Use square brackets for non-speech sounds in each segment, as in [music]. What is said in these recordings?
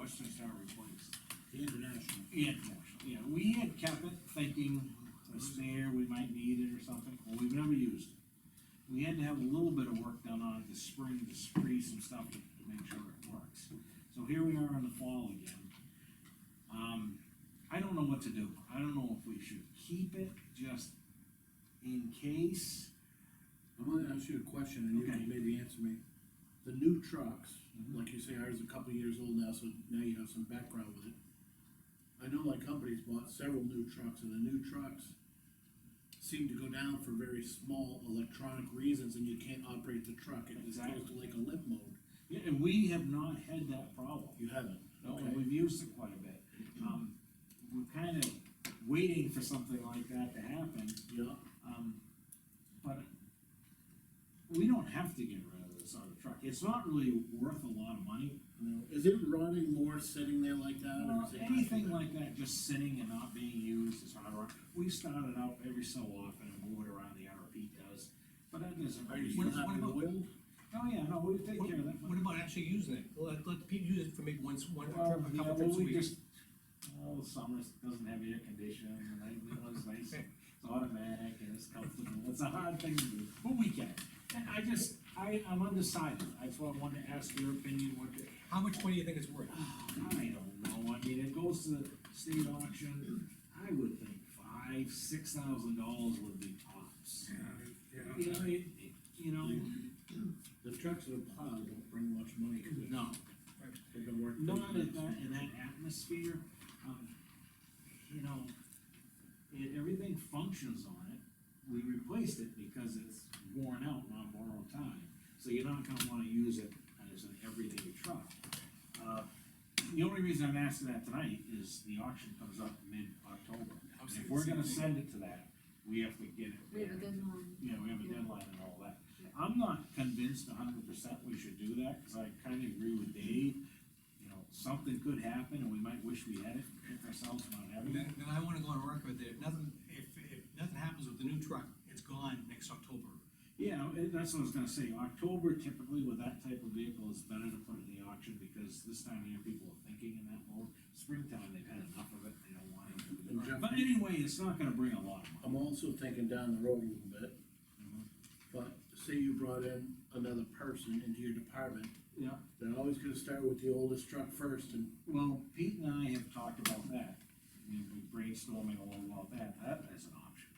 adjustments are replaced. The international. Yeah, yeah, we had kept it thinking, it's there, we might need it or something, well, we've never used it. We had to have a little bit of work done on it this spring to spray some stuff to to make sure it works. So here we are in the fall again. Um, I don't know what to do, I don't know if we should keep it just in case. I'm gonna ask you a question, and you Okay. can maybe answer me. The new trucks, like you say, ours is a couple years old now, so now you have some background with it. I know my company's bought several new trucks, and the new trucks seem to go down for very small electronic reasons, and you can't operate the truck, it just goes to like a limp mode. Yeah, and we have not had that problem. You haven't, No, and okay? we've used it quite a bit. Um, we're kind of waiting for something like that to happen, Yeah, um, but we don't have to get rid of this auto truck. It's not really worth a lot of money. no. is it rotting more sitting there like that, or is it? Anything like that, just sitting and not being used is hard work. We start it out every so often and move it around, the RP does, but that doesn't Are you really. still What- what having about- oil? Oh, yeah, no, we take care of that. What about actually using it? Let, let people use it for maybe once, one, trip, Well, a yeah, couple well, trips a we week. just- Well, the summer doesn't have air conditioning, and I, you know, it's nice, it's automatic, and it's comfortable, it's a hard thing to do, but we can. And I just, I, I'm undecided, that's why I wanted to ask your opinion, what, the- oh, How much money do you think it's worth? I don't know, I mean, it goes to state auction, I would think five, six thousand dollars would be tops. You know, it, it- you know, The trucks that are plowed don't bring much money, because no, they've been working. not in that, in that atmosphere, um, you know, it, everything functions on it. We replaced it because it's worn out and on borrowed time, so you're not gonna wanna use it as an everyday truck. Uh, The only reason I'm asking that tonight is the auction comes up mid-October. I was And If thinking we're the same gonna thing. send it to that, we have to get it. We have a there. deadline. Yeah, we have a deadline and all that. Yeah. I'm not convinced a hundred percent we should do that, cause I kinda agree with Dave. You know, something could happen and we might wish we had it, pick ourselves not having it. Then, then I wanna go on record that if nothing, if, if nothing happens with the new truck, it's gone next October. Yeah, and that's what I was gonna say, October typically with that type of vehicle is better to put in the auction, because this time of year people are thinking in that mode. Springtime, they've had enough of it, they don't want And it. Jeff- But anyway, it's not gonna bring a lot of money. I'm also thinking down the road a little bit. But say you brought in another person into your department, Yeah, they're always gonna start with the oldest truck first and. well, Pete and I have talked about that, we've been brainstorming a little about that, that is an option.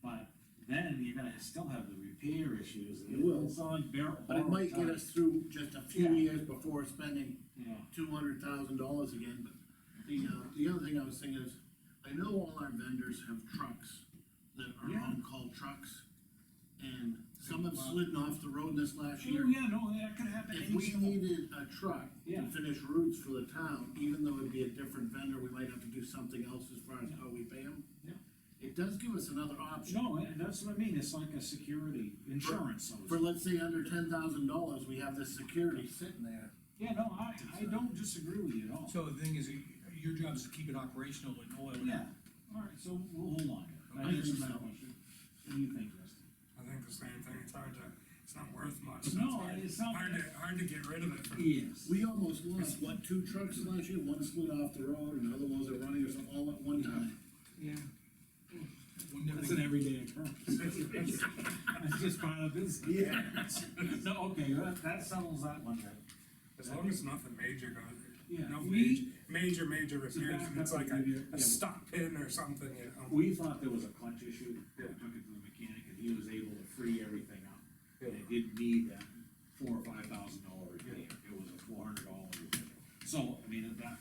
But then you're gonna still have the repair issues, and You will. it's on bare. But it might get us through just a few Yeah. years before spending Yeah, two hundred thousand dollars again, but the, uh, the other thing I was thinking is, I know all our vendors have trucks that are Yeah. on-call trucks. And some have slidden off the road this last year. oh, yeah, no, that could happen. If any we second. needed a truck Yeah. to finish routes for the town, even though it'd be a different vendor, we might have to do something else as far as how we pay them. Yeah. It does give us another option. No, and that's what I mean, it's like a security insurance, so to For speak. let's say under ten thousand dollars, we have this security sitting there. Yeah, no, I, I don't disagree with you at all. So the thing is, your job is to keep it operational with no oil. in it. Yeah, all right, so we'll hold on. to it. I That is think my so. question. What do you think, Justin? I think the same thing, it's hard to, it's not worth much. No, hard- it's not- Hard to, hard to get rid of it. from- Yes. We almost lost, what, two trucks last year, one slid off the road, and the other ones are running, or something, all at one time. Yeah. Wouldn't That's everything- an everyday occurrence. That's just part of business. [laughs] Yeah. No, okay, that, that settles that one then. [laughs] As long as nothing major goes, Yeah, no major, we, major, major It's a repairs, and it's backup like a, idea, yeah. a stock pin or something, you know? we thought there was a clutch issue, that took it to the mechanic, and he was able to free everything up. And it didn't need that four or five thousand dollar repair, it was a four hundred dollar repair. So, I mean, that,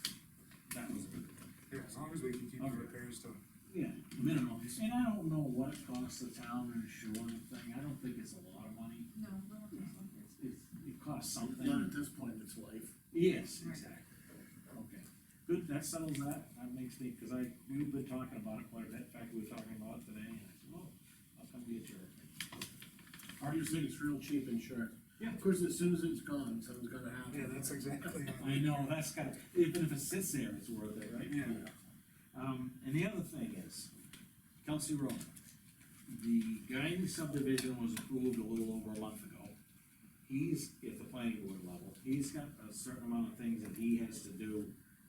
that was a good thing. Yeah, as long as we can keep the Okay. repairs to, Yeah, minimum, and I don't know what it costs the town to insure the thing, I don't think it's a lot of money. No, I don't think so. It's- it's- It costs Not at something. this point, it's life. Yes, Right. exactly. Okay, good, that settles that, that makes me, cause I, we've been talking about it quite a bit, in fact, we were talking about it today, and I said, oh, I'll come get your. I just think it's real cheap insurance. Yeah. Of course, as soon as it's gone, something's gonna happen. yeah, that's exactly. [laughs] it. I know, that's got, even if it sits there, it's worth it, right? Yeah. Um, and the other thing is, Kelsey Road, the Guyan subdivision was approved a little over a month ago. He's at the planning board level, he's got a certain amount of things that he has to do